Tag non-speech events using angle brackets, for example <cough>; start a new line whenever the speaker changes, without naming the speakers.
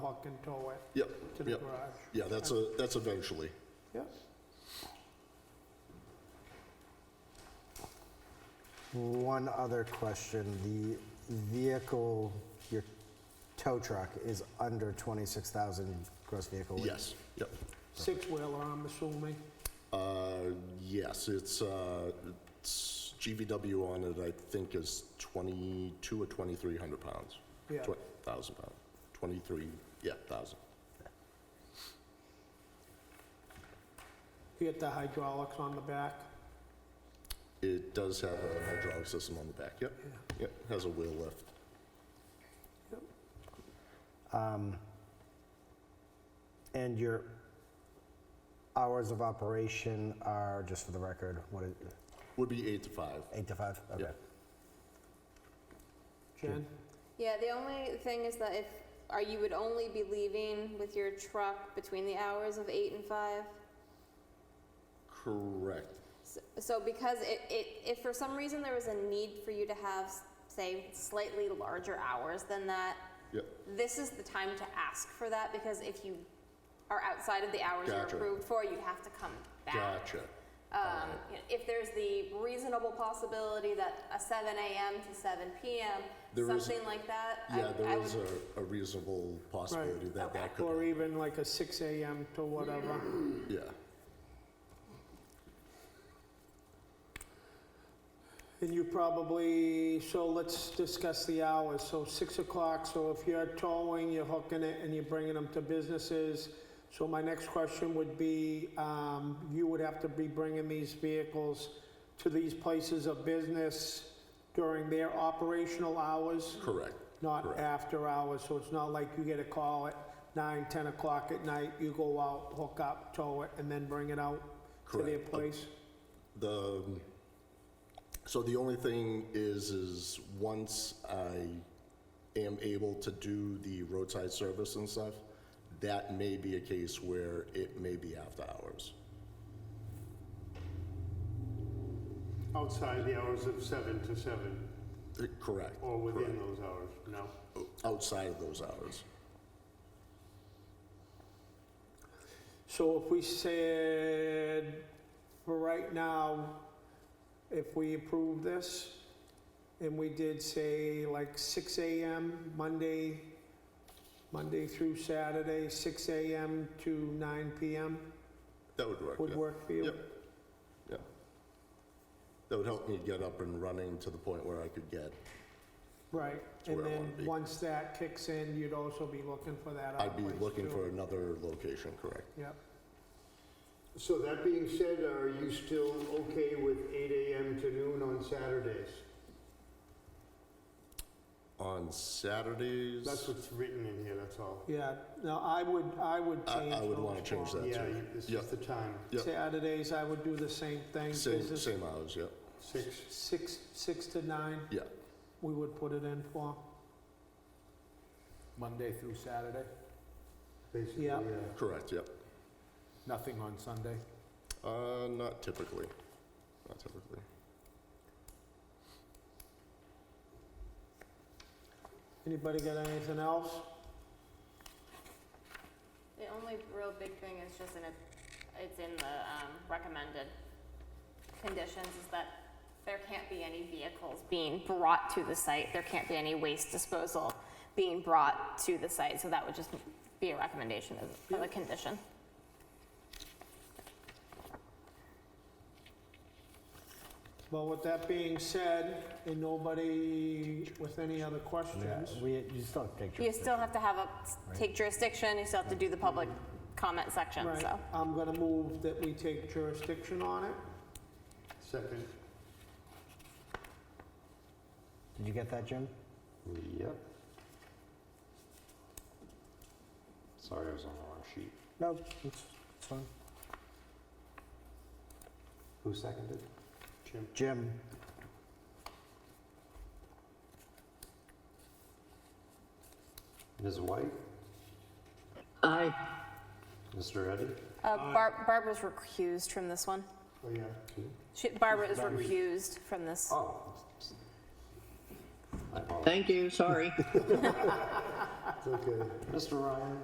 truck and tow it
Yep,
to the
yep.
garage.
Yeah, that's a, that's eventually.
Yep.
One other question, the vehicle, your tow truck is under 26,000 gross vehicle weight?
Yes, yep.
Six-wheeler, I'm assuming.
Uh, yes, it's, uh, it's GVW on it, I think is 22 or 2,300 pounds.
Yeah.
Twen- 1,000 pounds, 23, yeah, 1,000.
You get the hydraulics on the back.
It does have a hydraulic system on the back, yep.
Yeah.
Yep, has a wheel lift.
Um, And your hours of operation are, just for the record, what is,
Would be eight to five.
eight to five? Okay.
Yeah.
Jen?
Yeah, the only thing is that if, are you would only be leaving with your truck between the hours of eight and five?
Correct.
S- So because it, it, if for some reason there was a need for you to have, s- say, slightly larger hours than that,
Yep,
this is the time to ask for that because if you are outside of the hours
Gotcha.
you're approved for, you'd have to come back.
gotcha.
Um, you know, if there's the reasonable possibility that a 7 a.m. to 7 p.m.,
There is-
something like that, I-
Yeah,
I
there
would
is a, a reasonable possibility that that could,
Or even like a six AM to whatever.
yeah.
And you probably, so let's discuss the hours. So six o'clock, so if you're towing, you're hooking it and you're bringing them to businesses. So my next question would be, um, you would have to be bringing these vehicles to these places of business during their operational hours?
Correct,
not
Correct.
after hours, so it's not like you get a call at nine, ten o'clock at night, you go out, hook up, tow it, and then bring it out to their
Correct. Uh,
place?
The, um, so the only thing is, is once I am able to do the roadside service and stuff, that may be a case where it may be after hours.
Outside the hours of seven to seven,
Uh, Correct,
or within those hours, no?
outside of those hours.
So if we said, for right now, if we approve this, and we did say like six AM, Monday, Monday through Saturday, six AM to nine PM,
That would work,
would
yeah.
work for you?
Yep. Yeah. That would help me get up and running to the point where I could get,
Right, and
where I wanna
then,
be.
once that kicks in, you'd also be looking for that other
I'd be
place,
looking
too.
for another location, correct?
Yep,
So that being said, are you still okay with eight AM to noon on Saturdays?
On Saturdays?
That's what's written in here, that's all.
yeah, no, I would, I would
I- I
change.
would
those
wanna
ones.
change That's
Yeah,
right.
you- this
Yeah.
is the time,
Yep.
Saturdays, I would do the same thing,
Same,
business,
same hours, yep,
six.
six, six to nine,
yeah.
we would put it in for,
Monday through Saturday,
Basically, uh,
Yeah.
yeah.
Correct, yep.
nothing on Sunday.
Uh, not typically, not typically.
anybody got anything else?
The only real big thing is just in it, it's in the um, recommended conditions is that there can't be any vehicles being brought to the site. There can't be any waste disposal being brought to the site. So that would just be a recommendation as of a condition.
Well, with that being said, and nobody with any other
Yeah,
questions,
We, you still have pictures.
You still have to have a, take jurisdiction, you still have to do the public comment section,
right,
so.
I'm gonna move that we take jurisdiction on it.
Second.
Did you get that, Jim?
Yep. Sorry, I was on the wrong sheet.
No, it's, it's fine.
Who seconded? Jim.
Jim,
Ms. White? Aye. Mr. Eddy?
Uh, Bar- Barbara's recused from this one.
Oh, yeah.
She- Barbara is recused from this.
Oh. I apologize. <laughs>
Thank you, sorry.
Okay. Mr. Ryan?